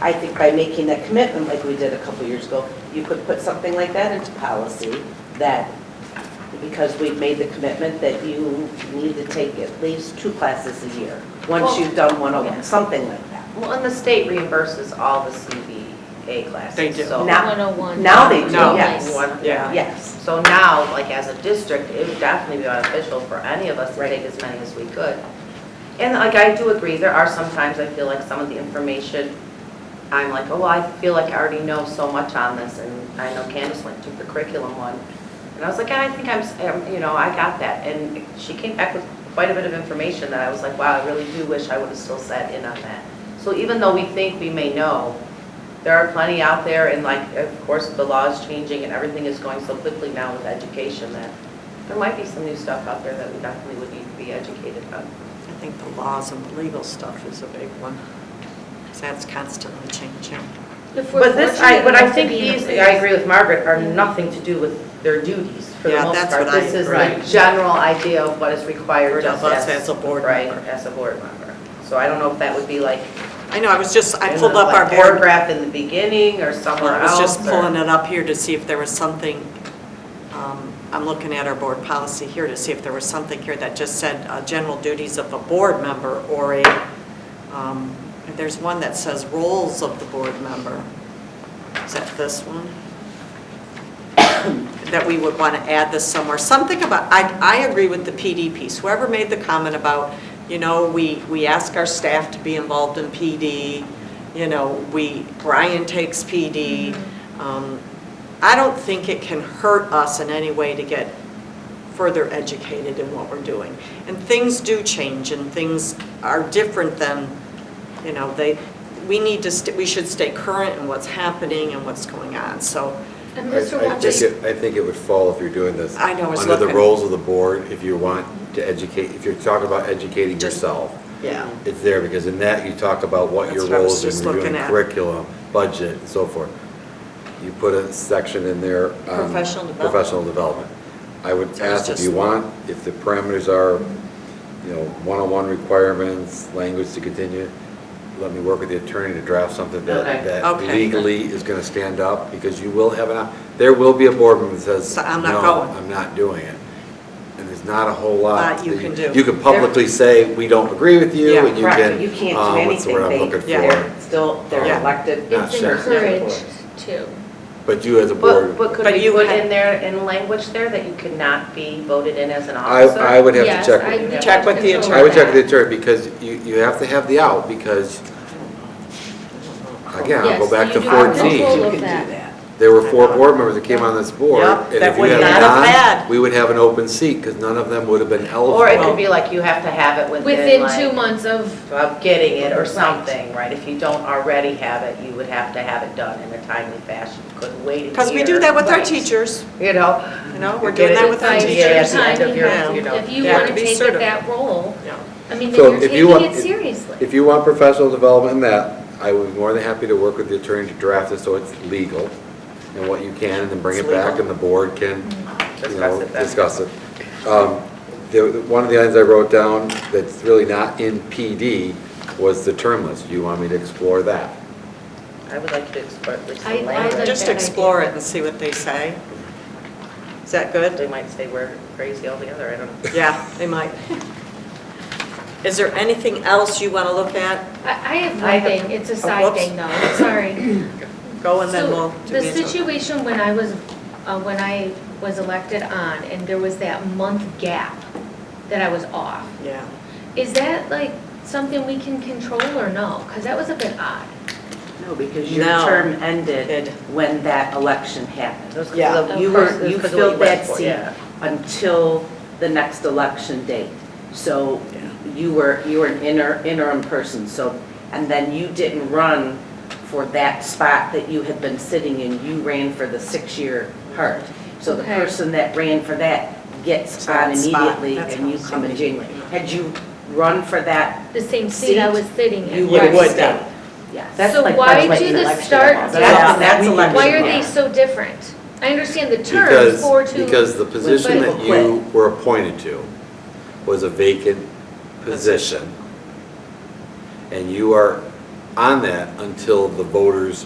I think by making that commitment like we did a couple years ago, you could put something like that into policy that because we've made the commitment that you need to take at least two classes a year, once Well- you've done 101, something like that. Well, and the state reimburses all the CVA classes. They do. so- Now- 101. Ah, now they do, No. yes. One- Yeah. uh, Yes. So now, like as a district, it would definitely be beneficial for any of us to Right. take as many as we could. And like I do agree, there are sometimes I feel like some of the information, I'm like, oh, well, I feel like I already know so much on this. And I know Candace went to the curriculum one. And I was like, I think I'm, s- um, you know, I got that. And she came back with quite a bit of information that I was like, wow, I really do wish I would have still sat in on that. So even though we think we may know, there are plenty out there, and like, of course, the law is changing and everything is going so quickly now with education that there might be some new stuff out there that we definitely would need to be educated on. I think the laws and the legal stuff is a big one, 'cause that's constantly changing. If we're But this, I, fortunate but I enough to think be in a these, place- I agree with Margaret, are nothing to do with their duties for the Yeah, most that's part. what I This is agree. the general idea of what is required Of just us as. as a board Right, member. as a board member. So I don't know if that would be like. I know, I was just, I in pulled the, up like, our board, Paragraph in the beginning or somewhere I else. was just or- pulling it up here to see if there was something, um, I'm looking at our board policy here to see if there was something here that just said uh, general duties of a board member or a, um, there's one that says roles of the board member. Is that this one? that we would want to add this somewhere, something about, I, I agree with the PD piece, whoever made the comment about, you know, we, we ask our staff to be involved in PD, you know, we, Brian takes PD. Um, I don't think it can hurt us in any way to get further educated in what we're doing. And things do change and things are different than, you know, they, we need to, st- we should stay current in what's happening and what's going on, so. And I I Mr. Walters. think it, I think it would fall if you're doing this. I know, I was Under the looking. roles of the board, if you want to educate, if you're talking about educating Just- yourself, Yeah. it's there, because in that you talk about what your That's what I was roles just in reviewing looking at. curriculum, budget, and so forth. You put a section in there. on Professional development. Professional development. I would So I was ask if just- you want, if the parameters are, you know, one-on-one requirements, language to continue, let me work with the attorney to draft something that, Okay. that Okay. legally is gonna stand up, because you will have an, op- there will be a board member that says, So no, I'm not going." I'm not doing it. And there's not a whole lot. Lot you that can do. You can publicly say, we don't agree with you, Yeah. and you Correct, can. but you can't uh, do what's the word I'm anything. They- looking yeah. for? They're still, they're Yeah. elected. Not It's sure. encouraged to. But you as a But, board, but could But we you put had- in there, in language there that you could not be voted in as an I, officer? I would have Yes, to check. I with- need Check with the control attorney. I would check that. with the attorney, because you, you have to have the out, because, again, I'll Yes, go back you to do have fourteen. control. You can do that. that. There were four board members that came on this board. Yep, and that if you would had a not have nine, had. We would have an open seat, because none of them would have been eligible. Or it could be like you have to have it within Within two like, months of, of getting it or something, right? If you don't already have it, you would have to have it done in a timely fashion. You Couldn't wait a year. Because we do that with our Right. teachers, You know, you know, we're You're doing that getting with our by a the teachers. idea. certain teachers. Yeah, at time, the end of you your, have- you know, if you they have want to to be take it certified. that role, Yeah. I mean, So then you're if you want- taking it if- seriously. If you want professional development in that, I would be more than happy to work with the attorney to draft it so it's legal and what you can, and then bring it It's back legal. and the board can, you Mm-hmm. Discuss know, it then. discuss it. Um, the- the- One of the items I wrote down that's really not in PD was the term list. You want me to explore that? I would like to explore at least I- I some like- language. Just explore it and see what they say. Is that good? They might say we're crazy altogether, I don't know. Yeah, they might. Is there anything else you want to look at? I, I have I one have- thing, it's a oh, side whoops. thing though, sorry. Go and then we'll So do the these. situation when I was, uh, when I was elected on and there was that month gap that I was off, Yeah. is that like something we can control or no? Because that was a bit odd. No, because your No. term Good. ended when that election It was happened. 'cause Yeah. of the You were- person- you because of what filled that went for, seat. yeah. Until the next election date. So Yeah. you were, you were an inter- interim person, so, and then you didn't run for that spot that you had been sitting in, you ran for the six-year part. So the Okay. person that ran for that gets So that on spot, immediately that's and you how come in somebody- January. Had you run for that, The same seat I Seat? was sitting in. you would You right? have would stayed. then. Yes. So That's like- why that's like do an the election start law. date- That's, that's Why are election. Why are they law. so different? I understand the terms, Because four, two. Because the position but- that you were appointed to was a vacant position, and you are on that until the voters